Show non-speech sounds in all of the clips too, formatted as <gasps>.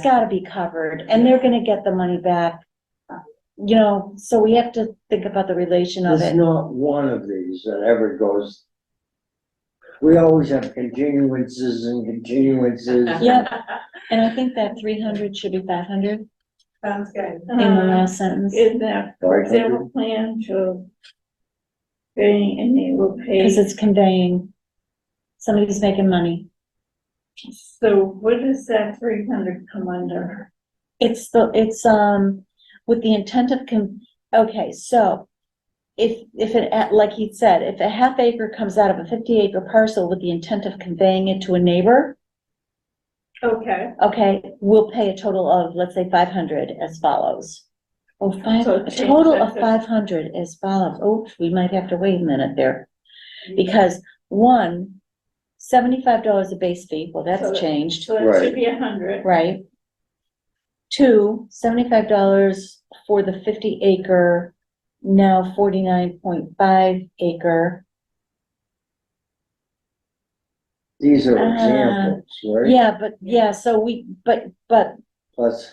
it's gotta be covered, and they're gonna get the money back. You know, so we have to think about the relation of There's it. not one of these that ever goes. We always have continuances and <laughs> continuances. Yeah, and I think that three hundred should be five hundred Sounds good. in the last sentence, Is that, for example, plan to pay and they will because pay, it's conveying somebody's making money. so what does that three hundred come under? It's the, it's, um, with the intent of, con- okay, so if, if it, a- like he said, if a half acre comes out of a fifty acre parcel with the intent of conveying it to a neighbor, Okay, okay, we'll pay a total of, let's say, five hundred as follows. Or five, So a change total that of to- five hundred as follows. Oh, we might have to wait a minute there. Because one, seventy-five dollars a base fee, well, So- that's changed. so it should be a hundred, Right. Two, seventy-five dollars for the fifty acre, now forty-nine point five acre. These are Uh-huh. Ah, examples, right? Yeah, but, yeah, so we, but, but Plus,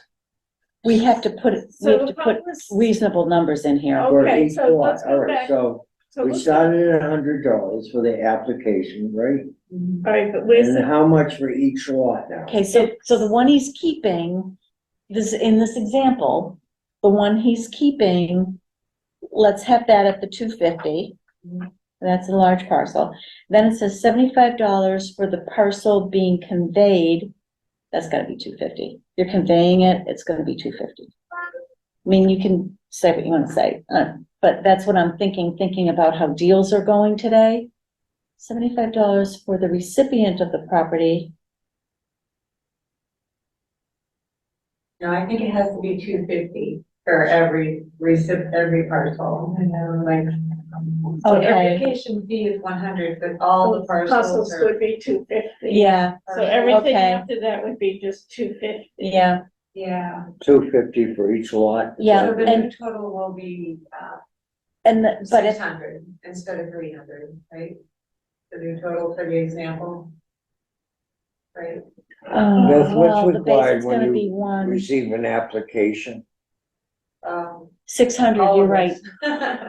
we have to put, we so have to the put was. reasonable numbers in here. for Okay, each so lot, let's go all right, back. so so we let's- started at a hundred dollars for the application, right? All right, but where's, And how much for each lot now? Okay, so, so the one he's keeping, this, in this example, the one he's keeping, let's have that at the two fifty. That's a large parcel. Then it says seventy-five dollars for the parcel being conveyed. That's gotta be two fifty. You're conveying it, it's gonna be two fifty. I mean, you can say what you wanna say, uh, but that's what I'm thinking, thinking about how deals are going today. Seventy-five dollars for the recipient of the property. No, I think it has to be two fifty for every recip, every parcel, you know, like. so Okay. Application fee is one hundred, but all the parcels parcels are. would be two fifty. Yeah, So everything Okay. after that would be just two fifty. yeah, Yeah, Two fifty for each lot? Yeah, so the and- new total will be, uh, and, the- but six if, hundred instead of three hundred, right? The new total for the example. Right, oh, That's what's well, the required basic's when gonna you be one, Receive an application? um. six hundred, all you're of right. us.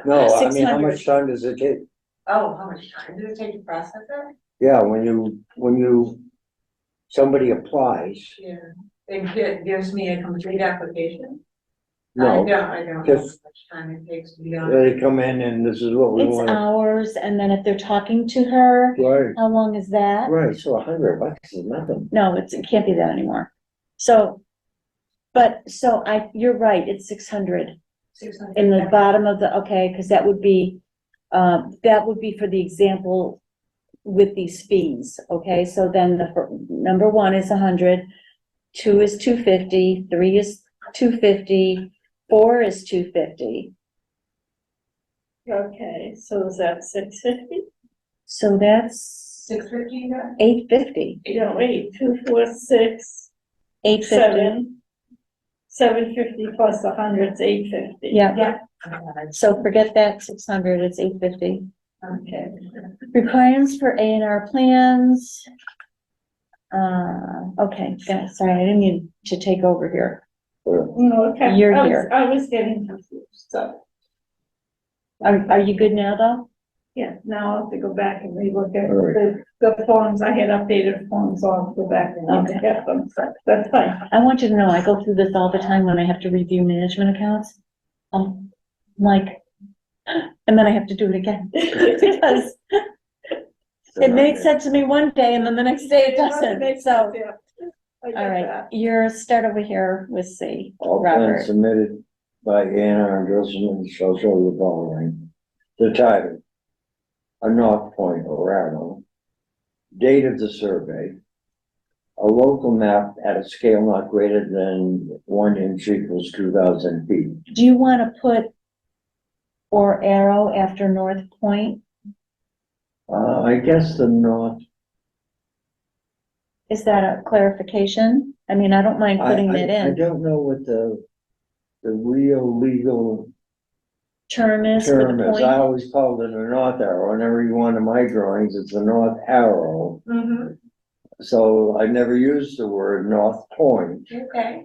No, I mean, how 600. much time does it take? <laughs> Oh, how much time did it take to process that? Yeah, when you, when you, somebody applies, Yeah, it gi- gives me a complete application. I no, don't, I don't know how just- much time it takes to be on. they come in and this is what we It's want. hours, and then if they're talking to her, Right, how long is that? right, so a hundred bucks is nothing. No, it's, it can't be that anymore. So, but, so I, you're right, it's six hundred Six hundred. in the bottom of the, okay, because that would be, uh, that would be for the example with these fees, okay? So then the, fir- number one is a hundred, two is two fifty, three is two fifty, four is two fifty. Okay, so is that six fifty? So that's Six fifty, yeah? eight fifty, Yeah, wait, two, four, six, eight fifty, seven. Seven fifty plus a hundred's eight fifty. yeah. Okay. So forget that six hundred, it's eight fifty. Okay. Requirements for A and R plans. Uh, okay, yeah, sorry, I didn't mean to take over here. No, okay. You're I was- here. I was getting confused, so, Are, are you good now, though? yeah, now I'll have to go back and relook at All the, the forms, I had updated forms, so I'll go back and look Okay. at them, so that's fine. I want you to know, I go through this all the time when I have to review management accounts. Um, like, <gasps> and then I have to do it again. <laughs> Because it makes sense to me one day, and then the next day it doesn't, so. All right, your start over here with C, All plans Robert. submitted by A and R endorsement shall show the following. The title, a North Point Orano, date of the survey, a local map at a scale not greater than one inch equals two thousand feet. Do you want to put or arrow after North Point? Uh, I guess the north, Is that a clarification? I mean, I don't mind I, putting that I, I in. don't know what the, the real legal Term is with term a is. I point. always called it a north arrow, in every one of my drawings, it's a north arrow. Mm-hmm, So I never used the word North Point. Okay.